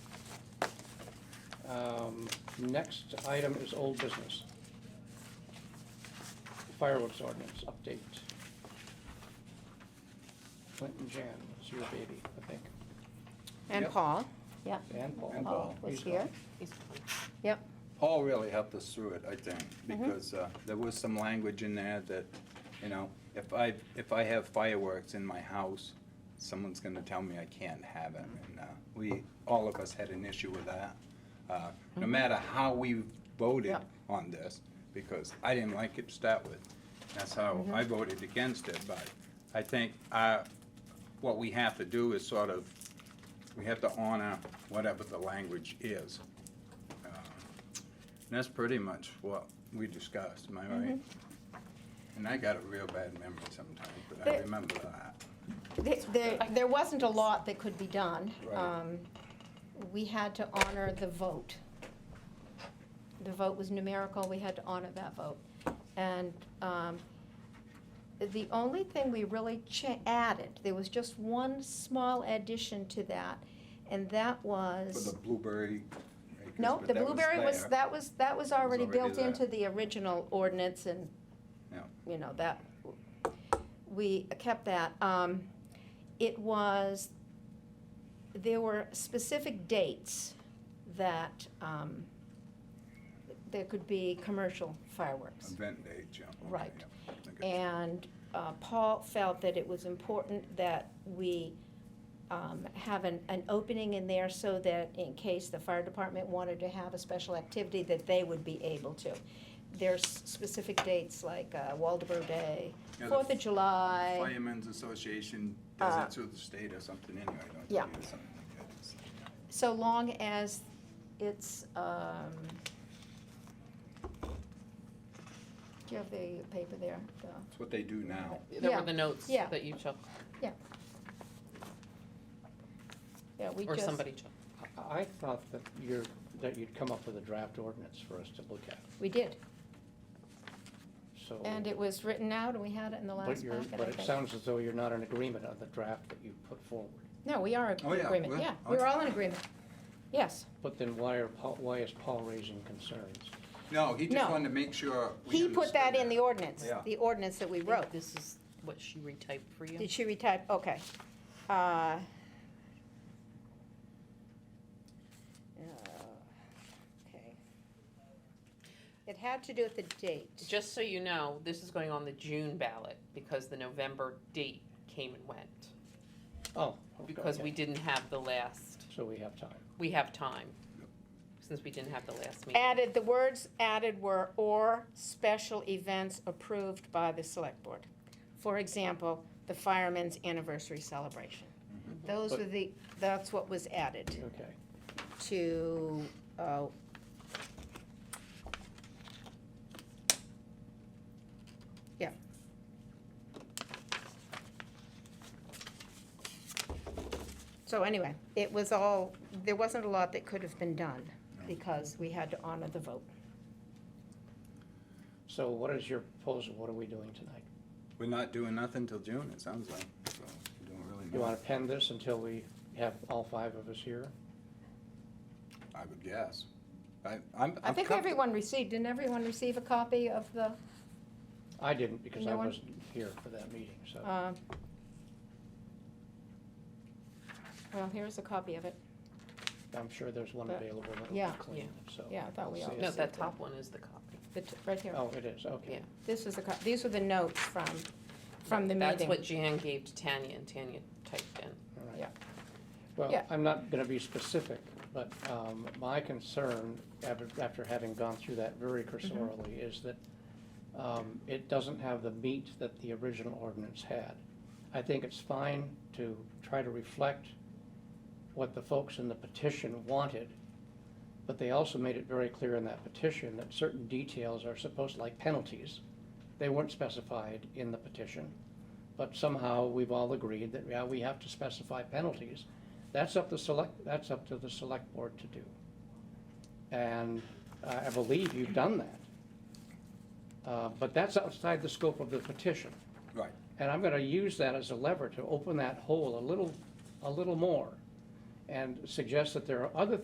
Um, Next item is old business. Fireworks ordinance update. Clint and Jan, it's your baby, I think, And Yep. Paul, yep, and Paul. And Paul Paul. was Oh, He's here, gone. yep, Paul really helped us through it, I think, Mhm. because uh, there was some language in there that, you know, if I, if I have fireworks in my house, someone's gonna tell me I can't have it. And uh, we, all of us had an issue with that, Uh, no matter how we voted Yep. on this, because I didn't like it to start with. That's how I voted against it, but I think uh, what we have to do is sort of, we have to honor whatever the language is. And That's pretty much what we discussed, am I right? Mm-hmm. And I got a real bad memory sometimes, but I But- remember that. There- There, there wasn't a lot that could be done. Right. Um, We had to honor the vote. The vote was numerical, we had to honor that vote. And um, the only thing we really cha- added, there was just one small addition to that, and that For was. the blueberry. makers, No, but the that blueberry was, there. that was, that was already already built there. into the original ordinance and, Yeah. you know, that, we kept that. Um, It was, there were specific dates that um, there could be commercial fireworks. Event date, yeah. okay, Right. yeah, I think it's- And uh, Paul felt that it was important that we um, have an, an opening in there so that in case the fire department wanted to have a special activity, that they would be able to. There's specific dates like uh, Waldeboro Day, Yeah, the Fourth of July. Firemen's Association Uh, does it through the state or something anyway, don't they? yeah. Or something like that. It's- So long as it's, um, do you have the paper there? The- It's what they do now. There Yeah, were the notes yeah. that you took, Yeah, we or just- somebody took. I I thought that you're, that you'd come up with a draft ordinance for us to look at, We did. so. Oh. And it was written out, and we had it in the But last you're, packet, I but it think. sounds as though you're not in agreement on the draft that you put forward. No, we are Oh, in yeah, agreement, we're- yeah, we're okay. all in agreement, yes. But then why are, Paul- why is Paul raising concerns? No, he No. just wanted to make sure. we He put that in the understood ordinance, Yeah. the ordinance that we I think wrote. This is what she retyped for you. Did she retype, okay. Uh, uh, uh, Okay. It had to do with the date. Just so you know, this is going on the June ballot because the November date came and went. Oh. Because okay. we didn't have the last, So we have time. we have time, since we didn't have the last meeting. Added, the words added were "or special events approved by the select board." For example, the firemen's anniversary celebration. Those Mm-hmm. But- were the, that's what was added Okay, to, uh, yeah. So anyway, it was all, there wasn't a lot that could have been done because we had to honor the vote. so what is your proposal? What are we doing tonight? We're not doing nothing till June, it sounds like, so we don't really You know. want to pen this until we have all five of us here? I would guess. I, I'm. I I'm think comfortable- everyone received, didn't everyone receive a copy of the, I didn't because I No one? wasn't here for that meeting, so. uh, well, here's a copy of it. I'm sure there's one But- available that'll yeah. be clean, so. Yeah, I thought we all. No, Yes. that top one is the copy. The t- Right here. Oh, it is, okay. Yeah. This was the, co- these were the notes from, from the That's what meeting. Jan gave to Tanya, and Tanya typed in. All right. Yeah. Well, Yeah. I'm not going to be specific, but um, my concern, after after having gone through that very cursorily, is that um, it doesn't have the meat that the original ordinance had. I think it's fine to try to reflect what the folks in the petition wanted, but they also made it very clear in that petition that certain details are supposed, like penalties, they weren't specified in the petition. But somehow, we've all agreed that, yeah, we have to specify penalties. That's up to select, that's up to the select board to do. And uh, I believe you've done that. Uh, But that's outside the scope of the petition. Right. And I'm gonna use that as a lever to open that hole a little, a little more and suggest that there are other